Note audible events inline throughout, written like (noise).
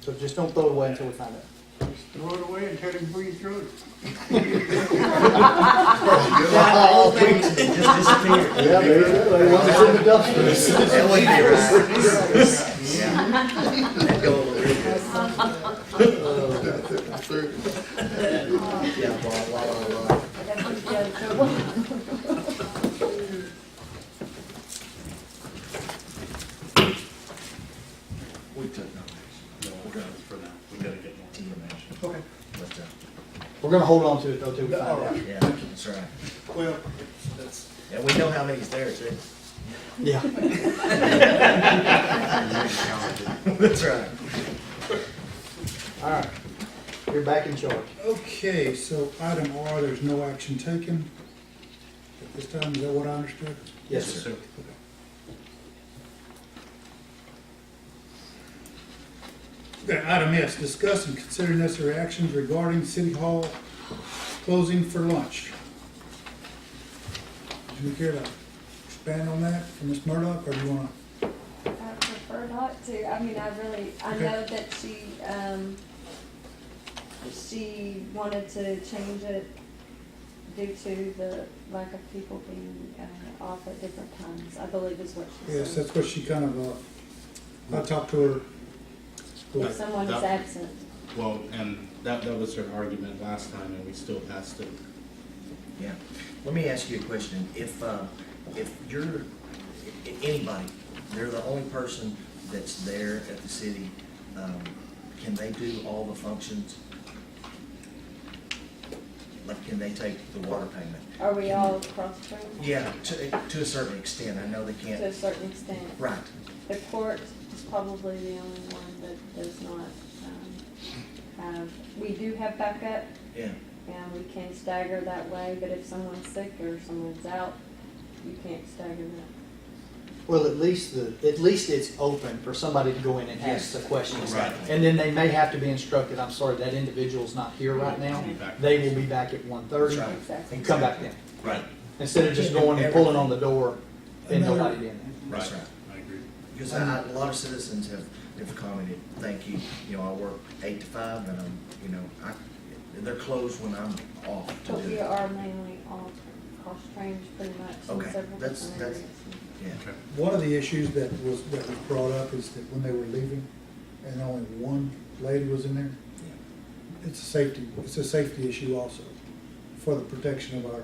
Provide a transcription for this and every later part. So just don't throw it away until we find it. Just throw it away and tell him who you threw it. The whole thing just disappeared. Yeah, there you go, they want to in the dumpster. That would be right. That go over real good. Yeah, blah, blah, blah, blah. We took no action. No, we're gonna, for now, we gotta get more information. Okay. But, uh, We're gonna hold on to it though till we find out. yeah, that's right. Well, that's. And we know how many's there, too. Yeah. (laughs) That's right. All right. You're back in charge. Okay, so item R, there's no action taken. At this time, is that what I understood? Yes, sir. Okay, item S, discuss and consider necessary actions regarding City Hall closing for lunch. Do you care to expand on that from Ms. Murdock, or do you wanna? I prefer not to. I mean, I really, I Okay. know that she, um, she wanted to change it due to the lack of people being, uh, off at different times, I believe is what she Yes, said. that's what she kind of, uh, I talked to her. If someone is That- absent. Well, and that, that was her argument last time, and we still passed it. Yeah. Let me ask you a question. If, uh, if you're, i- i- anybody, they're the only person that's there at the city, um, can they do all the functions? Like, can they take the water payment? Are we all cross-trained Yeah, to, to a certain extent. I know they to a can't. certain extent? Right. The court is probably the only one that does not, um, have, we do have backup, Yeah. And we can stagger that way, but if someone's sick or someone's out, you can't stagger that. Well, at least the, at least it's open for somebody to go in and ask Yes. the questions. Right. And then they may have to be instructed, I'm sorry, that individual's not here right now. Be back. They will be back at one thirty Right. Exactly. and come back then. Right. Instead of just going and pulling on the door and nobody being there. That's right. I agree. Because I, I- a lot of citizens have, have commented, thank you, you know, I work eight to five and I'm, you know, I, they're closed when I'm off to But do we it. are mainly all cross-trained pretty much Okay, in several that's- different that's- areas. Yeah, Okay. One of the issues that was, that was brought up is that when they were leaving, and only one lady was in there, yeah, it's a safety, it's a safety issue also, for the protection of our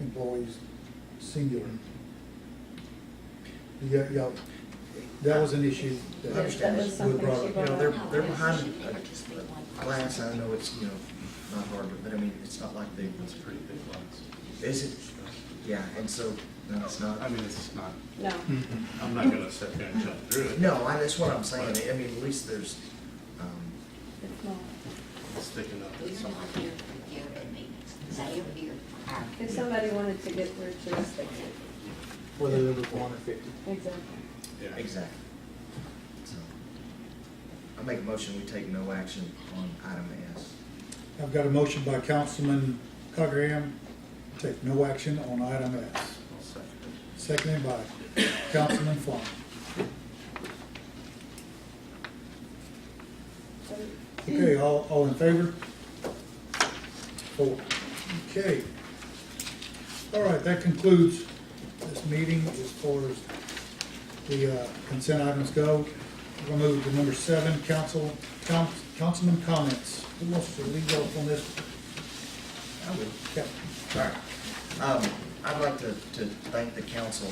employees singular. Yeah, yeah, that was an issue that I understand. That was was something brought she up. You know, they're, brought up. they're behind a glass, I know it's, you know, not hard, but I mean, it's not like they, That's a pretty big loss. is it? Yeah, and so, no, it's not. I mean, it's not, No, Mm-hmm. I'm not gonna sit there and jump through it. No, I, that's what I'm saying, I mean, at least there's, um, it's not. It's sticking up We're at not something. here for your meetings, they are here for our If somebody wanted to get through to us, they could. Whether there was one or fifty. Exactly. Yeah. exactly. So, I make a motion, we take no action on item S. I've got a motion by Councilman Cockerham, take no action on item S. I'll second it. Seconded by Councilman Flan. So Okay, all, all in favor? Four. Okay. All right, that concludes this meeting as far as the uh, consent items go. We'll move to number seven, council, coun- councilman comments. Who wants to lead off on this? I would. Captain? All right. Um, I'd like to, to thank the council,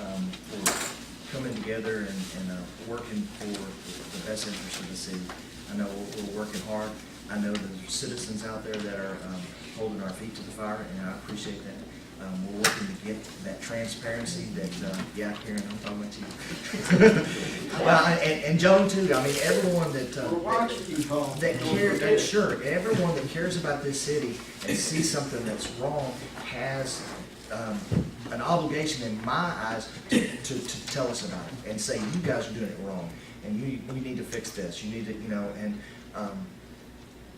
um, for coming together and, and, uh, working for the best interest of the city. I know we're, we're working hard. I know there's citizens out there that are, um, holding our feet to the fire, and I appreciate that. Um, we're working to get that transparency that, uh, yeah, Karen, I'm talking about you. (laughs) Well, and- and, and Joan too. I mean, everyone that, uh. That care, that sure, everyone that cares about this city and sees something that's wrong has, um, an obligation in my eyes to, to, to tell us about it and say, you guys are doing it wrong, and you, we need to fix this, you need to, you know, and, um,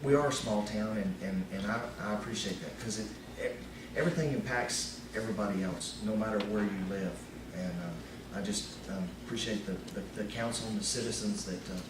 we are a small town and, and, and I, I appreciate that, cause it, e- everything impacts everybody else, no matter where you um, live. And, uh, I just, um, appreciate the, the, the council and the citizens that, uh,